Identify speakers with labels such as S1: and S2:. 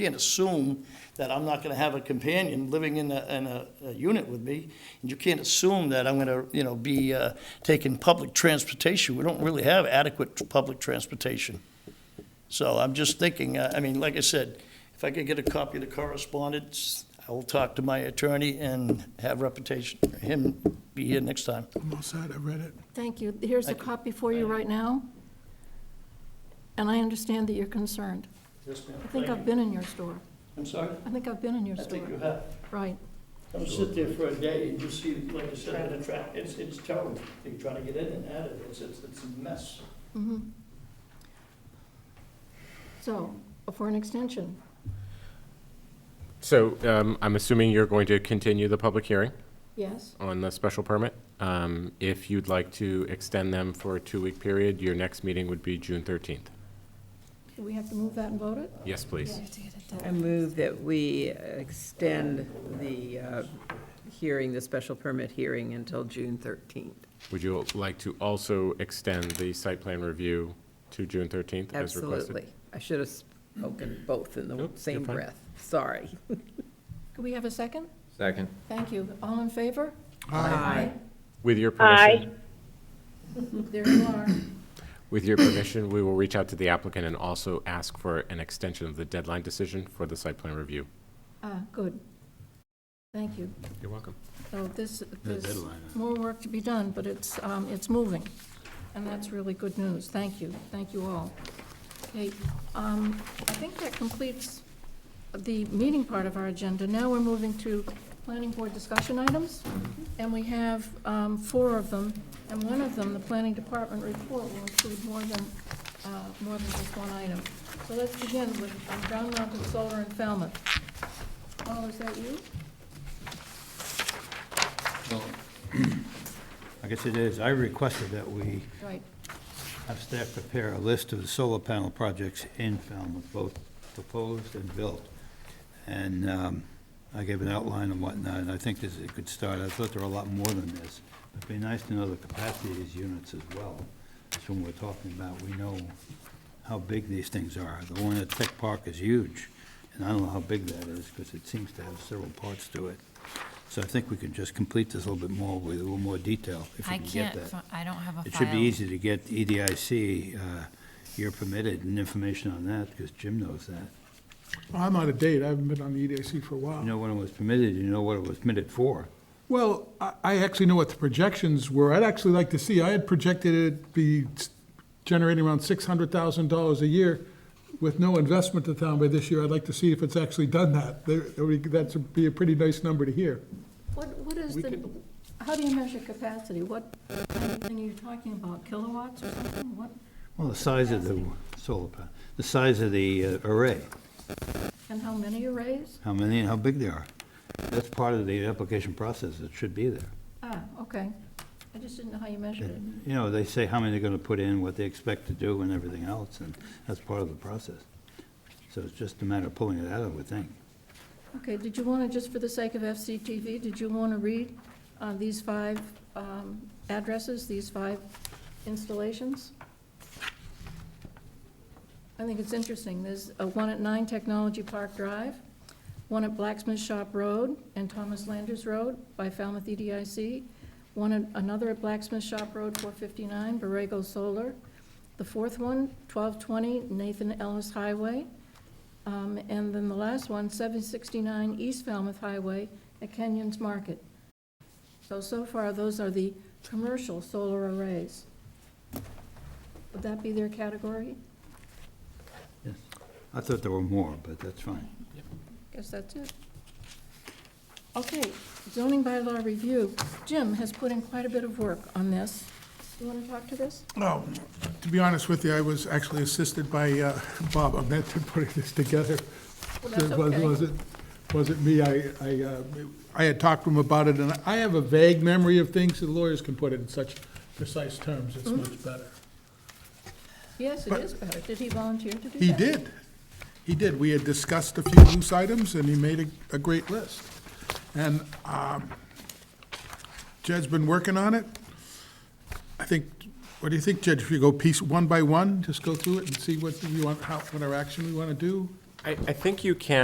S1: can't assume that I'm not gonna have a companion living in a, in a, a unit with me, and you can't assume that I'm gonna, you know, be, uh, taking public transportation. We don't really have adequate public transportation. So I'm just thinking, uh, I mean, like I said, if I could get a copy of the correspondence, I will talk to my attorney and have reputation, him be here next time.
S2: I'm all set, I read it.
S3: Thank you. Here's a copy for you right now. And I understand that you're concerned.
S1: Yes, ma'am.
S3: I think I've been in your store.
S1: I'm sorry?
S3: I think I've been in your
S1: I think
S3: store.
S1: you have.
S3: Right.
S1: Come sit there for a day and you see, like I said, the traffic, it's, it's terrible. They try to get in and out of it, it's, it's it's a mess.
S3: Mhm. So, for an extension,
S4: So um, I'm assuming you're going to continue the public hearing
S3: yes?
S4: on the special permit. Um, If you'd like to extend them for a two-week period, your next meeting would be June 13th.
S3: Do we have to move that and vote it?
S4: Yes, please.
S5: I move that we extend the uh, hearing, the special permit hearing until June 13th.
S4: Would you like to also extend the site plan review to June 13th as requested?
S5: Absolutely. I should have spoken both in the
S4: Nope, you're
S5: same
S4: fine.
S5: breath. Sorry.
S3: Could we have a second?
S6: Second.
S3: Thank you. All in favor?
S5: Aye.
S4: With your permission,
S3: There you are.
S4: with your permission, we will reach out to the applicant and also ask for an extension of the deadline decision for the site plan review.
S3: Ah, good. Thank you.
S4: You're welcome.
S3: So this, there's more work to be done, but it's, um, it's moving, and that's really good news. Thank you, thank you all. Okay, um, I think that completes the meeting part of our agenda. Now we're moving to planning board discussion items, and we have, um, four of them, and one of them, the planning department report, will include more than, uh, more than just one item. So let's begin with um, Ground Mounted Solar in Falmouth. Paul, is that you?
S7: I guess it is. I requested that we
S3: Right.
S7: have staff prepare a list of the solar panel projects in Falmouth, both proposed and built. And um, I gave an outline and whatnot, and I think this, it could start, I thought there were a lot more than this. It'd be nice to know the capacity of these units as well. That's what we're talking about. We know how big these things are. The one at Tech Park is huge, and I don't know how big that is, because it seems to have several parts to it. So I think we could just complete this a little bit more with a little more detail, if we
S8: I
S7: can get
S8: can't,
S7: that.
S8: fi- I don't have a file.
S7: It should be easy to get E EDIC, uh, year permitted, and information on that, because Jim knows that.
S2: I'm out of date, I haven't been on the EDIC for a
S7: You
S2: while.
S7: know when it was permitted, you know what it was permitted for.
S2: Well, I, I actually know what the projections were, I'd actually like to see, I had projected it be s- generating around six hundred thousand dollars a year with no investment to town by this year, I'd like to see if it's actually done that. There- there would- That'd be a pretty nice number to hear.
S3: What, what is
S2: We
S3: the,
S2: could-
S3: how do you measure capacity? What, and you're talking about kilowatts or something? What,
S7: Well, the size of the solar panel, the size of the uh, array,
S3: and how many arrays?
S7: how many and how big they are. That's part of the application process, it should be there.
S3: Ah, okay. I just didn't know how you measured it.
S7: You know, they say how many they're gonna put in, what they expect to do, and everything else, and that's part of the process. So it's just a matter of pulling it out, I would think.
S3: Okay, did you want to, just for the sake of FCTV, did you want to read uh, these five um, addresses, these five installations? I think it's interesting. There's uh, one at 9 Technology Park Drive, one at Blacksmith Shop Road and Thomas Landers Road by Falmouth E EDIC, one, at- another at Blacksmith Shop Road, 459, Borrego Solar, the fourth one, 1220 Nathan Ellis Highway, um, And then the last one, 769 East Falmouth Highway at Kenyon's Market. So, so far, those are the commercial solar arrays. Would that be their category?
S7: Yes. I thought there were more, but that's fine.
S3: Guess that's it. Okay, zoning bylaw review. Jim has put in quite a bit of work on this. You want to talk to this?
S2: No, Um, to be honest with you, I was actually assisted by uh, Bob Ahmed in putting this together.
S3: Well, that's
S2: It was-
S3: okay.
S2: Was it, was it me? I, I, uh, I had talked to him about it, and I have a vague memory of things, and lawyers can put it in such precise terms, it's
S3: Mm-hmm.
S2: much better.
S3: Yes, it is better. Did he volunteer to do that?
S2: He did, he did. We had discussed a few loose items, and he made a, a great list. And um, Jed's been working on it. I think, what do you think, Jed, if you go piece one by one, just go through it and see what we want, how, what our action we want to do?
S4: I, I think you can